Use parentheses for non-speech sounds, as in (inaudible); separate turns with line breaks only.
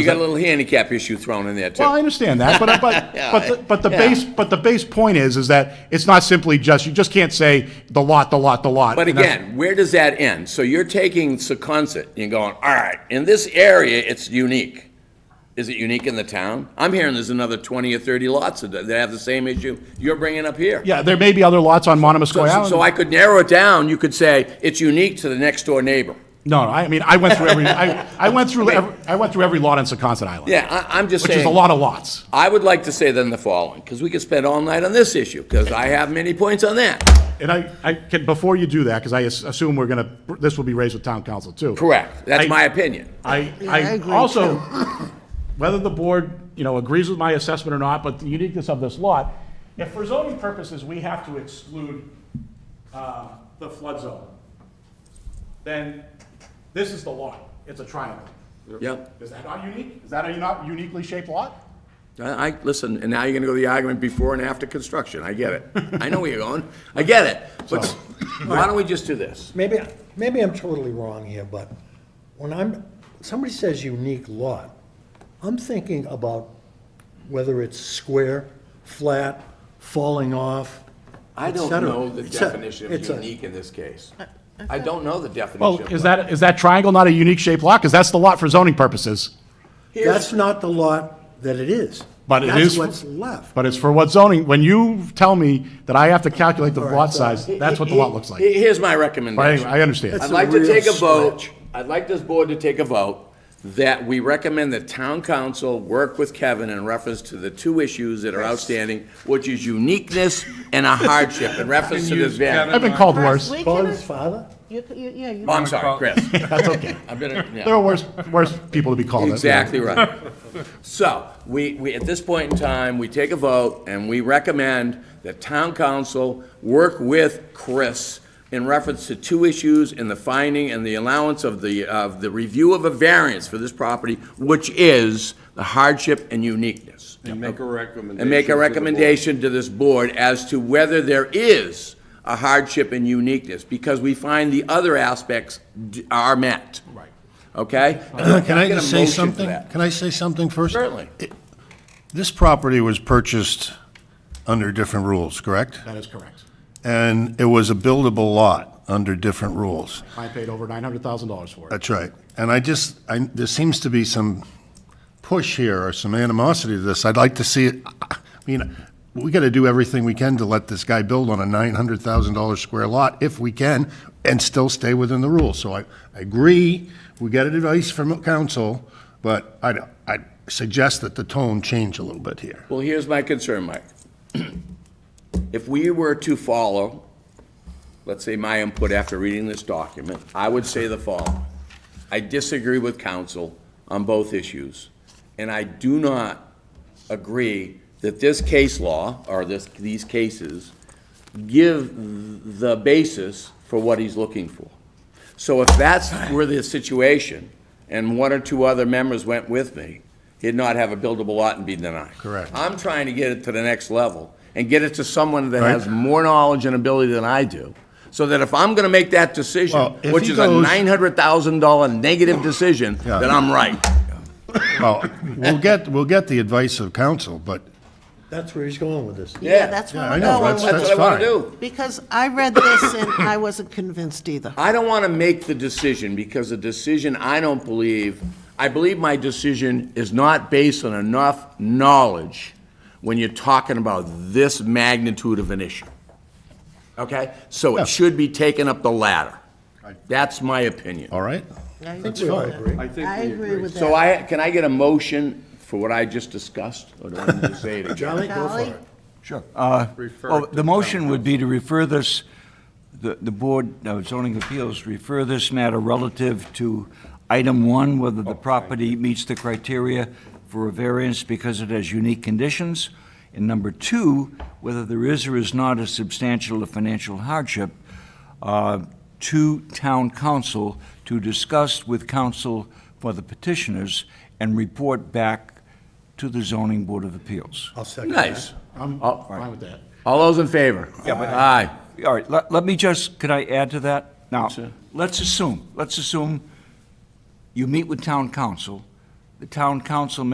You got a little handicap issue thrown in there, too.
Well, I understand that,
(laughs)
but, but,
Yeah,
but, the- but the
yeah.
base, but the base point is, is that it's not simply just, you just can't say the lot, the lot, the lot.
But
and that's-
again, where does that end? So you're taking Secundit and going, all right, in this area, it's unique. Is it unique in the town? I'm hearing there's another 20 or 30 lots that that have the same issue you're bringing up here.
Yeah, there may be other lots on Monomoskoy
So- So
Island.
I could narrow it down, you could say, it's unique to the next door neighbor.
No, no, I mean, I went through every, I, I went through, every- I went through every lot on Secaucet Island.
Yeah, I, I'm just
Which
saying.
is a lot of lots.
I would like to say then the following, because we could spend all night on this issue, because I have many points on that.
And I, I can, before you do that, because I as- assume we're gonna, this will be raised with town council too.
Correct, that's
I-
my opinion.
I,
Yeah, I
I
agree,
also, (coughs) whether the board, you know, agrees with my assessment or not, but the uniqueness of this lot, if for zoning purposes, we have to exclude uh, the flood zone, then this is the lot. It's a triangle.
Yep.
Is that not unique? Is that a not uniquely shaped lot?
I, I- listen, and now you're gonna go to the argument before and after construction, I get it. I know where you're going, I get it. But
So-
why don't we just do this?
Maybe, maybe I'm totally wrong here, but when I'm, somebody says unique lot, I'm thinking about whether it's square, flat, falling off,
I don't
et cetera.
know the
It's a-
definition
it's
of
a-
unique in this case. I don't know the definition.
Well,
of
is
what-
that, is that triangle not a unique shaped lot? Because that's the lot for zoning purposes,
Here's-
That's not the lot that it is.
But it
That's
is-
what's left.
but it's for what zoning, when you tell me that I have to calculate the lot size, that's what the lot looks like.
He- Here's my
But anyway,
recommendation.
I understand.
I'd
It's a
like to
real
take a vote,
stretch.
I'd like this board to take a vote that we recommend that town council work with Kevin in reference to the two issues that are outstanding, which is uniqueness and a hardship in reference to this variance.
I've been called worse.
Chris, we
Father,
can-
father?
you- you- yeah, you-
Oh, I'm sorry, Chris.
(laughs) That's okay.
(laughs) I've been, yeah.
There are worse, worse people to be called. that's-
Exactly right. So, we, we, at this point in time, we take a vote, and we recommend that town council work with Chris in reference to two issues in the finding and the allowance of the, of the review of a variance for this property, which is the hardship and uniqueness.
And make a recommendation.
And make
to
a
the board.
recommendation to this board as to whether there is a hardship and uniqueness, because we find the other aspects d- are met. Right. Okay?
Can I
get a
just say
motion for
something?
that?
Can I say something first?
Certainly.
This property was purchased under different rules, correct?
That is correct.
And it was a buildable lot under different rules.
I paid over nine hundred thousand dollars for it.
That's right. And I just, I, there seems to be some push here or some animosity to this. I'd like to see, it. I mean, we got to do everything we can to let this guy build on a nine hundred thousand dollar square lot if we can and still stay within the rules. So I, I agree, we got advice from council, but I, I suggest that the tone change a little bit here.
Well, here's my concern, Mike. (clears throat) If we were to follow, let's say my input after reading this document, I would say the following. I disagree with counsel on both issues, and I do not agree that this case law, or this, these cases, give the basis for what he's looking for. So if that's where the situation, and one or two other members went with me, he'd not have a buildable lot and be denied.
Correct.
I'm trying to get it to the next level and get it to someone that
Right.
has more knowledge and ability than I do, so that if I'm gonna make that decision,
Well, if
which
he
is a
goes-
nine hundred thousand dollar negative decision,
Yeah.
then I'm right.
Well, we'll get, we'll get the advice of council, but,
That's where he's going with this.
Yeah.
yeah, that's where
Yeah, I
we're
know,
going
that's-
with
That's what
it.
I wanna
fine.
do.
Because I read this and I wasn't convinced either.
I don't want to make the decision because the decision, I don't believe, I believe my decision is not based on enough knowledge when you're talking about this magnitude of an issue. Okay? So it should be taken up the ladder. That's my
Oh.
opinion.
all right?
I
I think we all agree.
I think
I
we
agree with
So
that.
I, can I get a motion for what I just discussed? Or do I need to say it again?
Charlie, go for
Charlie?
it.
Sure. Uh,
Refer
Well,
to
the motion
town
would be to refer this, the the Board of Zoning Appeals, refer this matter relative to item one, whether
Oh,
the property meets the criteria for a variance because it has unique conditions, and number two, whether there is or is not a substantial or financial hardship uh, to town council to discuss with council for the petitioners and report back to the zoning board of appeals.
I'll second that.
Nice.
I'm fine with that.
All those in favor? Aye.
All right, let, let me just, could I add to that? Now, let's assume, let's assume you meet with town council, the town council